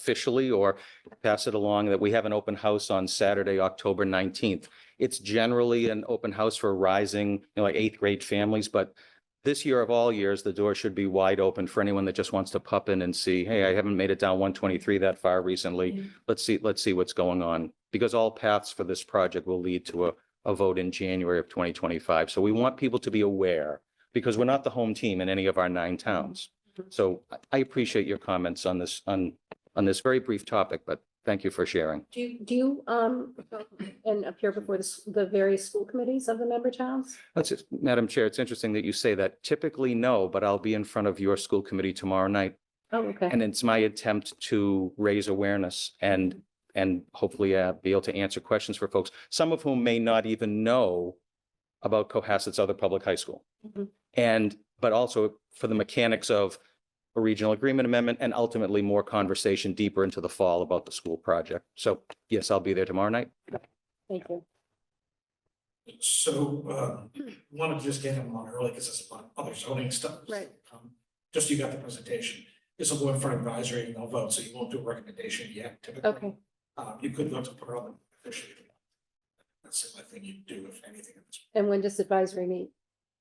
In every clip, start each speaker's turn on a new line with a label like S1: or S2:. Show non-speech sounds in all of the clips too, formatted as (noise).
S1: officially or pass it along that we have an open house on Saturday, October nineteenth. It's generally an open house for rising, you know, like eighth grade families, but this year of all years, the door should be wide open for anyone that just wants to pop in and see, hey, I haven't made it down one twenty-three that far recently. Let's see, let's see what's going on, because all paths for this project will lead to a, a vote in January of twenty twenty-five. So we want people to be aware, because we're not the home team in any of our nine towns. So I- I appreciate your comments on this, on, on this very brief topic, but thank you for sharing.
S2: Do you, do you, um, go and appear before the, s- the various school committees of the member towns?
S1: That's it, Madam Chair, it's interesting that you say that. Typically, no, but I'll be in front of your school committee tomorrow night.
S2: Oh, okay.
S1: And it's my attempt to raise awareness and, and hopefully uh, be able to answer questions for folks, some of whom may not even know about Cohasset's other public high school.
S2: Mhm.
S1: And, but also for the mechanics of a regional agreement amendment and ultimately more conversation deeper into the fall about the school project. So yes, I'll be there tomorrow night.
S2: Thank you.
S3: So, uh, wanted to just get him on early because it's about other zoning stuff.
S2: Right.
S3: Um, Just you got the presentation. This will go in front of advisory and they'll vote, so you won't do a recommendation yet typically.
S2: Okay,
S3: Uh, you could vote to put it on the officially. That's the only thing you do if anything. at this-
S2: and when does advisory meet?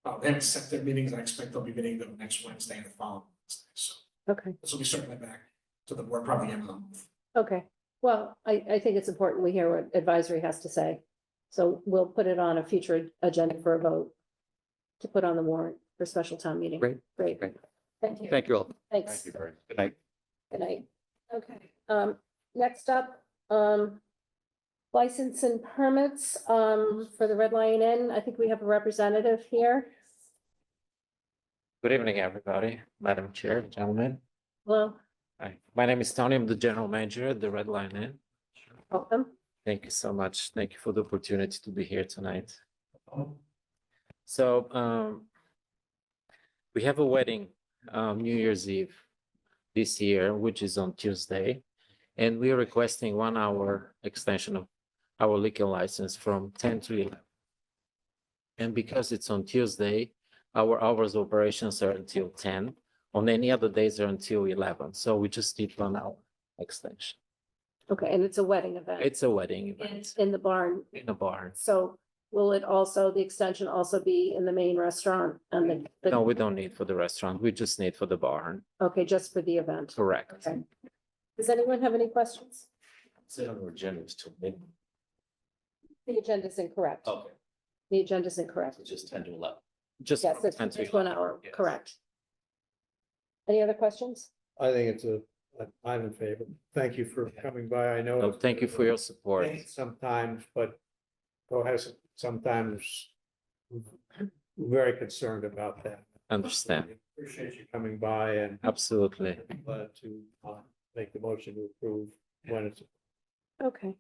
S3: Uh, they haven't set their meetings. I expect they'll be meeting them next Wednesday and the following. Wednesday. So
S2: Okay,
S3: this will be certainly back to the board probably in a month.
S2: okay. Well, I, I think it's important we hear what advisory has to say. So we'll put it on a future agenda for a vote to put on the warrant for special town meeting.
S1: Great,
S2: Great.
S1: great.
S2: Thank you.
S1: Thank you all.
S2: Thanks.
S1: very much. Good night.
S2: Good night. Okay, um, next up, um, license and permits, um, for the Red Lion Inn. I think we have a representative here.
S4: Good evening, everybody, Madam Chair, gentlemen.
S2: Hello,
S4: Hi, my name is Tony. I'm the general manager at the Red Lion Inn.
S2: welcome.
S4: Thank you so much. Thank you for the opportunity to be here tonight. So um we have a wedding um New Year's Eve this year, which is on Tuesday. And we are requesting one hour extension of our liquor license from ten to eleven. And because it's on Tuesday, our hours of operations are until ten. On any other days are until eleven, so we just need one hour extension.
S2: Okay, and it's a wedding event.
S4: It's a wedding
S2: In,
S4: event
S2: in the barn.
S4: in a barn.
S2: So will it also, the extension also be in the main restaurant and the-
S4: No,
S2: the,
S4: we don't need for the restaurant. We just need for the barn,
S2: okay, just for the event?
S4: correct?
S2: Okay. Does anyone have any questions?
S4: Sit on the agenda is till mid,
S2: The agenda is incorrect.
S4: okay,
S2: The agenda is incorrect.
S4: so just ten to eleven. Just.
S2: Yes, it's
S4: 10 to
S2: it's one
S4: 11,
S2: hour,
S4: yes.
S2: correct. Any other questions?
S5: I think it's a, I- I'm in favor. Thank you for coming by. I know.
S4: No, Oh, thank you for your support.
S5: late Sometimes, but Cohasset sometimes very concerned about that.
S4: Understand,
S5: Appreciate you coming by and
S4: absolutely.
S5: glad to uh, make the motion to approve when it's
S2: Okay,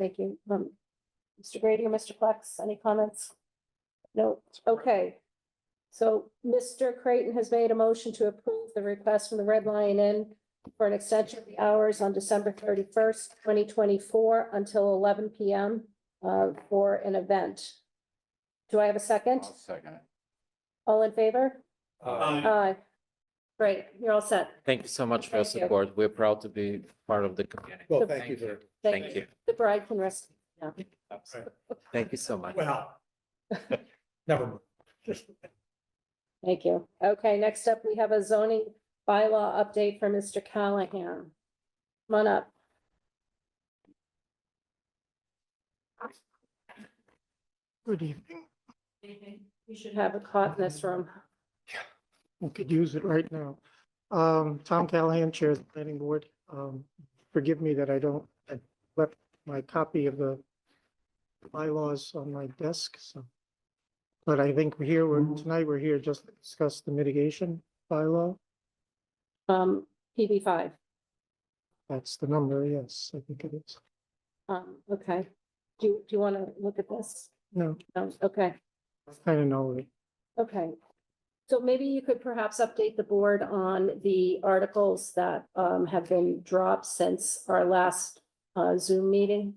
S2: thank you. Um, Mr. Grady or Mr. Flex, any comments? No, okay. So Mr. Creighton has made a motion to approve the request from the Red Lion Inn for an extension of the hours on December thirty-first, twenty twenty-four until eleven PM uh, for an event. Do I have a second?
S4: second it. Mm.
S2: All in favor?
S5: Um,
S3: Uh,
S2: Aye. Great, you're all set.
S4: Thank you so much for your
S2: Thank you.
S4: support. We're proud to be part of the community.
S5: Well, thank you very
S4: Thank you.
S2: The bride can rest. now.
S4: Thank you so much.
S3: Well.
S5: (laughs) Never mind.
S2: Thank you. Okay, next up, we have a zoning bylaw update for Mr. Callahan. Come on up.
S6: Good evening.
S2: You should have a cot in this room.
S6: We could use it right now. Um, Tom Callahan, Chair of the Planning Board. Um, forgive me that I don't, I left my copy of the bylaws on my desk, so. But I think we're here, we're, tonight we're here just to discuss the mitigation bylaw.
S2: Um, PB five.
S6: That's the number, yes, I think it is.
S2: Um, okay. Do, you- do you want to look at this?
S6: No,
S2: No, okay,
S6: I don't know.
S2: okay. So maybe you could perhaps update the board on the articles that, um, have been dropped since our last, uh, Zoom meeting.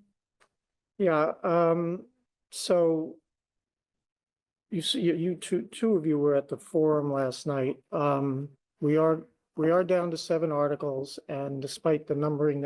S6: Yeah, um, so you see, you- you two, two of you were at the forum last night. Um, we are we are down to seven articles, and despite the numbering that